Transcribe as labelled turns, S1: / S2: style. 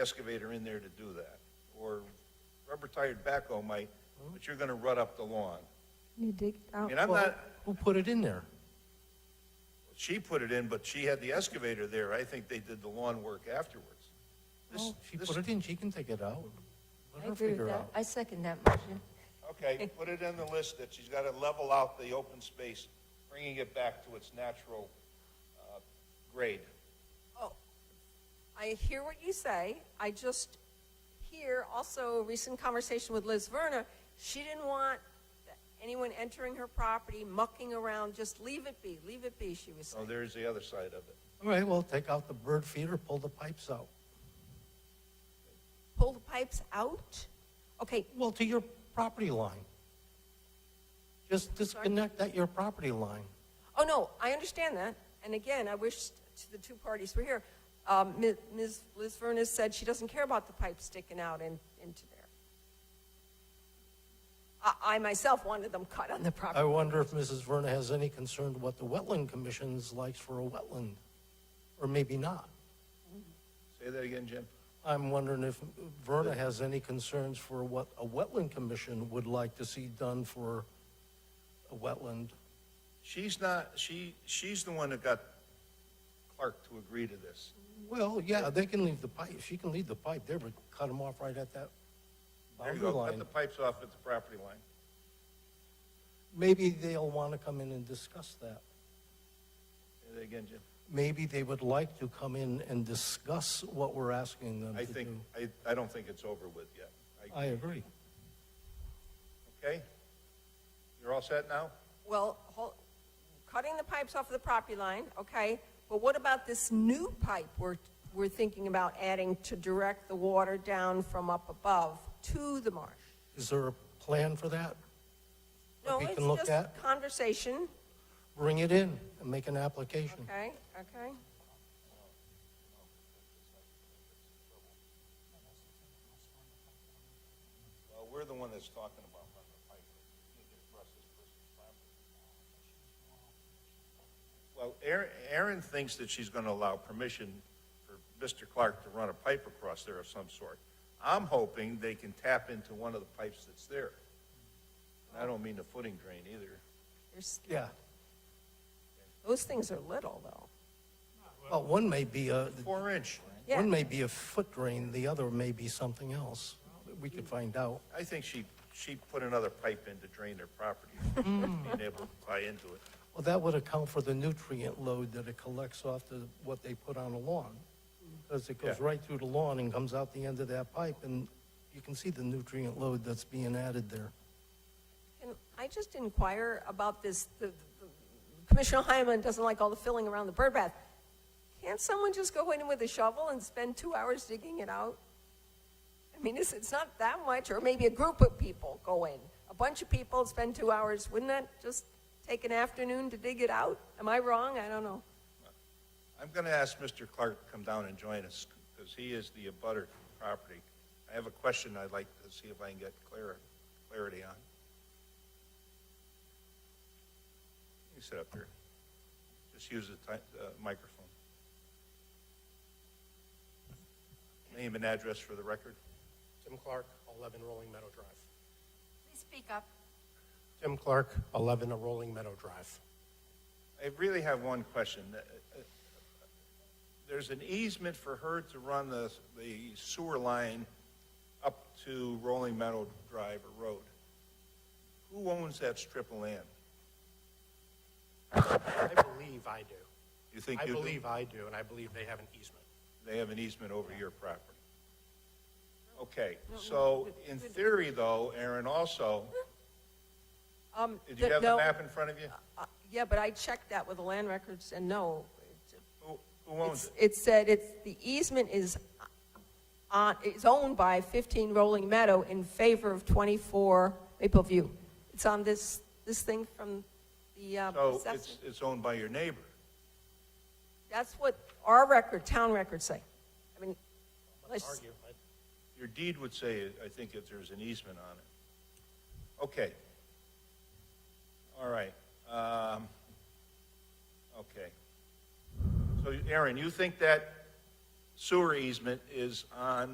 S1: excavator in there to do that, or rubber-tired backhoe might, but you're gonna rut up the lawn.
S2: You dig
S1: I
S2: out.
S1: mean, I'm not,
S3: Who put it in there?
S1: she put it in, but she had the excavator there, I think they did the lawn work afterwards. This-
S3: Well, she
S1: this-
S3: put it in, she can take it out. Let
S4: Oh, I
S3: her
S4: agree with
S3: figure
S4: that.
S3: out.
S4: I second that motion.
S1: Okay, put it in the list that she's gotta level out the open space, bringing it back to its natural, uh, grade.
S5: Oh, I hear what you say. I just hear also a recent conversation with Liz Verna. She didn't want anyone entering her property, mucking around, just leave it be, leave it be, she was
S1: So
S5: saying.
S1: Oh, there's the other side of it.
S3: All right, well, take out the bird feeder, pull the pipes out.
S5: Pull the pipes out? Okay,
S3: Well, to your property line. Just disconnect at your property line.
S5: oh no, I understand that. And again, I wish to the two parties were here. Um, Mi- Ms. Liz Verna said she doesn't care about the pipes sticking out in, into there. I, I myself wanted them cut on the property.
S3: I wonder if Mrs. Verna has any concern what the wetland commission's likes for a wetland, or maybe not.
S1: Say that again, Jim?
S3: I'm wondering if Verna has any concerns for what a wetland commission would like to see done for a wetland.
S1: She's not, she, she's the one that got Clark to agree to this.
S3: Well, yeah, they can leave the pipe, she can leave the pipe there, but cut them off right at that
S1: There you
S3: boundary
S1: go, cut the
S3: line.
S1: pipes off at the property line.
S3: Maybe they'll want to come in and discuss that.
S1: Say that again, Jim?
S3: Maybe they would like to come in and discuss what we're asking them
S1: I
S3: to
S1: think,
S3: do.
S1: I, I don't think it's over with yet. I-
S3: I agree.
S1: Okay? You're all set now?
S5: Well, hol- cutting the pipes off of the property line, okay, but what about this new pipe we're, we're thinking about adding to direct the water down from up above to the marsh?
S3: Is there a plan for that?
S5: No,
S3: we
S5: it's
S3: can look
S5: just
S3: at?
S5: conversation,
S3: Bring it in and make an application.
S5: okay, okay?
S1: Well, we're the one that's talking about running the pipe. Well, Erin, Erin thinks that she's gonna allow permission for Mr. Clark to run a pipe across there of some sort. I'm hoping they can tap into one of the pipes that's there. And I don't mean the footing drain either.
S5: There's-
S3: Yeah.
S5: Those things are little, though.
S3: Well, one may be a,
S1: Four inch.
S5: Yeah.
S3: one may be a foot drain, the other may be something else. We could find out.
S1: I think she, she put another pipe in to drain their property, being able to tie into it.
S3: Well, that would account for the nutrient load that it collects off the, what they put on the lawn. Because it goes
S1: Yeah.
S3: right through the lawn and comes out the end of that pipe, and you can see the nutrient load that's being added there.
S5: Can I just inquire about this, the, the- Commissioner Hyman doesn't like all the filling around the bird bath. Can't someone just go in with a shovel and spend two hours digging it out? I mean, it's, it's not that much, or maybe a group of people go in, a bunch of people spend two hours, wouldn't that just take an afternoon to dig it out? Am I wrong? I don't know.
S1: I'm going to ask Mr. Clark to come down and join us, because he is the abutter to the property. I have a question I'd like to see if I can get clar- clarity on. You sit up here. Just use the ti- uh, microphone. Name and address for the record.
S6: Tim Clark, 11 Rolling Meadow Drive.
S4: Please speak up.
S6: Tim Clark, 11 Rolling Meadow Drive.
S1: I really have one question. Uh, uh, There's an easement for her to run the, the sewer line up to Rolling Meadow Drive or Road. Who owns that strip of land?
S6: I believe I do.
S1: You think
S6: I
S1: you do?
S6: believe I do, and I believe they have an easement.
S1: They have an easement over your property. Okay, so in theory though, Aaron, also,
S5: Um,
S1: did you
S5: the-
S1: have the
S5: no,
S1: map in front of you?
S5: uh, Yeah, but I checked that with the land records, and no, it-
S1: Who, who owns
S5: It's-
S1: it?
S5: It said it's, the easement is on, is owned by 15 Rolling Meadow in favor of 24 Maple View. It's on this, this thing from the uh,
S1: So
S5: assessor.
S1: it's, it's owned by your neighbor.
S5: That's what our record, town records say. I mean, let's,
S6: Argue, I-
S1: Your deed would say, I think, if there's an easement on it. Okay. All right. Um, okay. So, Aaron, you think that sewer easement is on